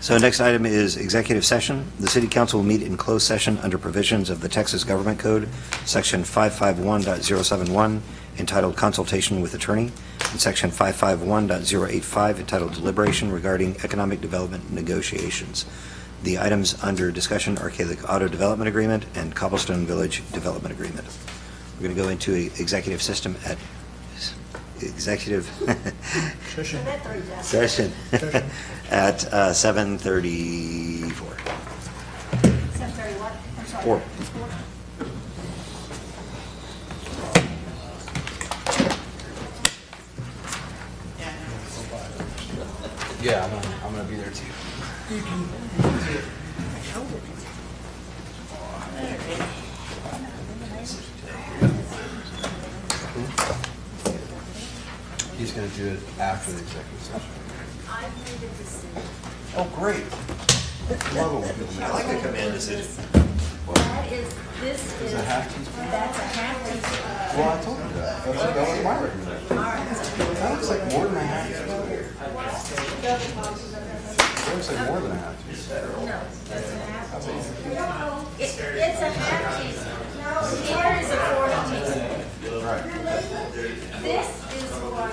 So next item is executive session. The city council will meet in closed session under provisions of the Texas Government Code, Section 551.071, entitled Consultation with Attorney, and Section 551.085, entitled Deliberation Regarding Economic Development Negotiations. The items under discussion are Calic Auto Development Agreement and Cobblestone Village Development Agreement. We're going to go into a executive system at, executive Session. session at uh, 7:34. Seven thirty what? I'm sorry. Four. Yeah, I'm gonna, I'm gonna be there too. He's gonna do it after the executive session. Oh, great. Love it when people- I like the command decision. That is, this is, Is it a half teaspoon? that's a half teaspoon. Well, I told you that. That's, that was my recommendation. That looks like more than a half teaspoon. That looks like more than a half teaspoon. No, that's a half teaspoon. No, it- It's a half teaspoon. No, here is a quarter teaspoon. Right. This is what.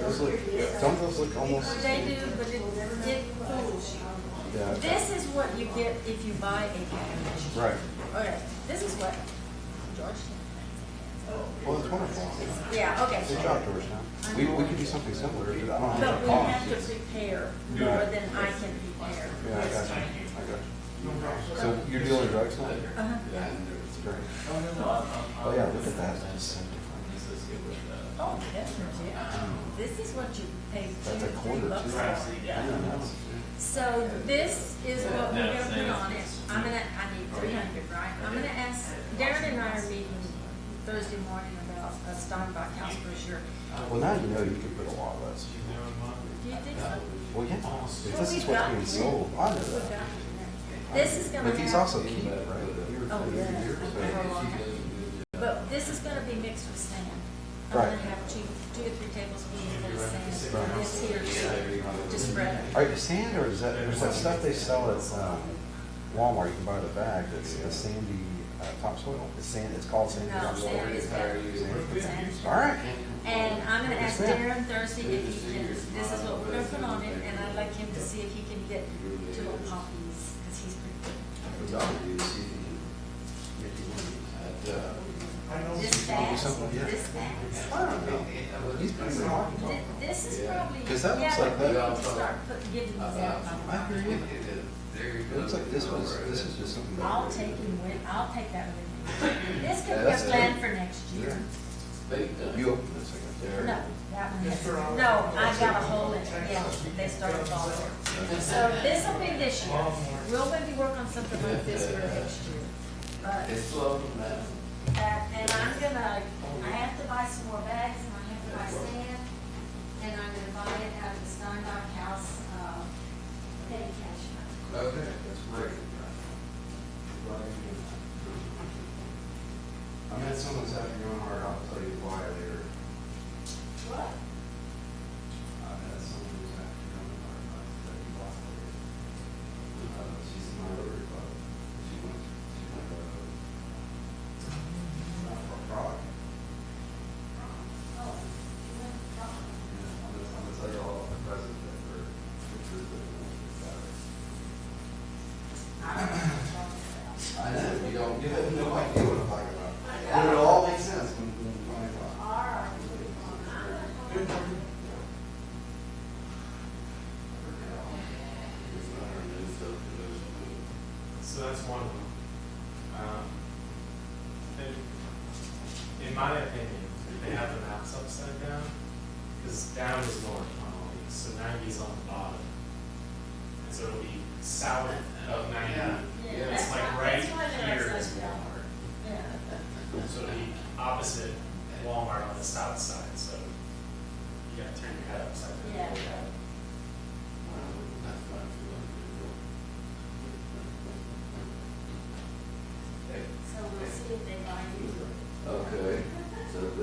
Those look, don't those look almost, They do, but it, it fools Yeah. you. This is what you get if you buy a package. right? Okay, this is what, George? Well, it's wonderful. Yeah, okay. Good job, Georgetown. We, we could do something similar, but I don't have But enough we have to costs. prepare more than I can prepare. Yeah, I got you, I got you. So you're dealing drugs now? Uh-huh. Yeah, it's great. Oh, yeah, look at that. That's so different. Oh, that's legit. This is what you pay two, That's a three quarter bucks too. for. I Yeah. know, that's- So this is what we're gonna put on it. I'm gonna, I need three hundred, right? I'm gonna ask, Darren and I are meeting Thursday morning about a stock by house brochure. Well, now you know you could put a lot less. Do you think so? Well, yeah, if Well, this is we've what's got- being sold, I know We've got it. that. This is gonna have. But he's also keeping it, right? Oh, yeah. So- But this is gonna be mixed with sand. I'm Right. gonna have two, two or three tablespoons of sand, and this here, too, to spread it. Are you sand or is that, there's that stuff they sell at um, Walmart, you can buy the bag, it's a sandy uh, topsoil, it's sand, it's called sandy No, topsoil. sand is better. Sand. All right, And I'm gonna ask Understand. Darren Thursday if he can, this is what we're gonna put on it, and I'd like him to see if he can get two little poppies, cause he's pretty good. This fast, yeah. this fast. I don't know, he's pretty smart. Th- This is probably. 'Cause that looks yeah, like but we that. need to Start putting, giving these out. by I the hear you. It looks like this was, this is just something. that- I'll take him with, I'll take that with me. This could Yeah, be a that's plan good. for next year. You open this, I guess. No, that one has, no, I got a hole in it, yeah, they started falling. So this will be this year. We'll maybe work on something like this for next year. But, uh, and I'm gonna, I have to buy some more bags and I have to buy sand. And I'm gonna buy it out of the Steinbach House, uh, petty cash. I met someone this afternoon, or I'll tell you why later. What? I met someone this afternoon, or I'll tell you why later. Uh, she's in my other club. She went, she went, uh, not for a frolic. Oh, Yeah, I'm gonna, I'm gonna tell you all the presents that were, that were given to me that Saturday. I know, you don't, you have no idea what I'm talking about. But it all makes sense when, when you find out. So that's one of them. Um, and in my opinion, they have the maps upside down, because down is north normally, so ninety's on the bottom. And so it'll be south of ninety, Yeah, it's that's like why- right that's why they're here is upside down. Walmart. Yeah. So it'll be opposite Walmart on the south side, so you gotta turn your head upside down. Yeah. So we'll see if they buy you. Okay, so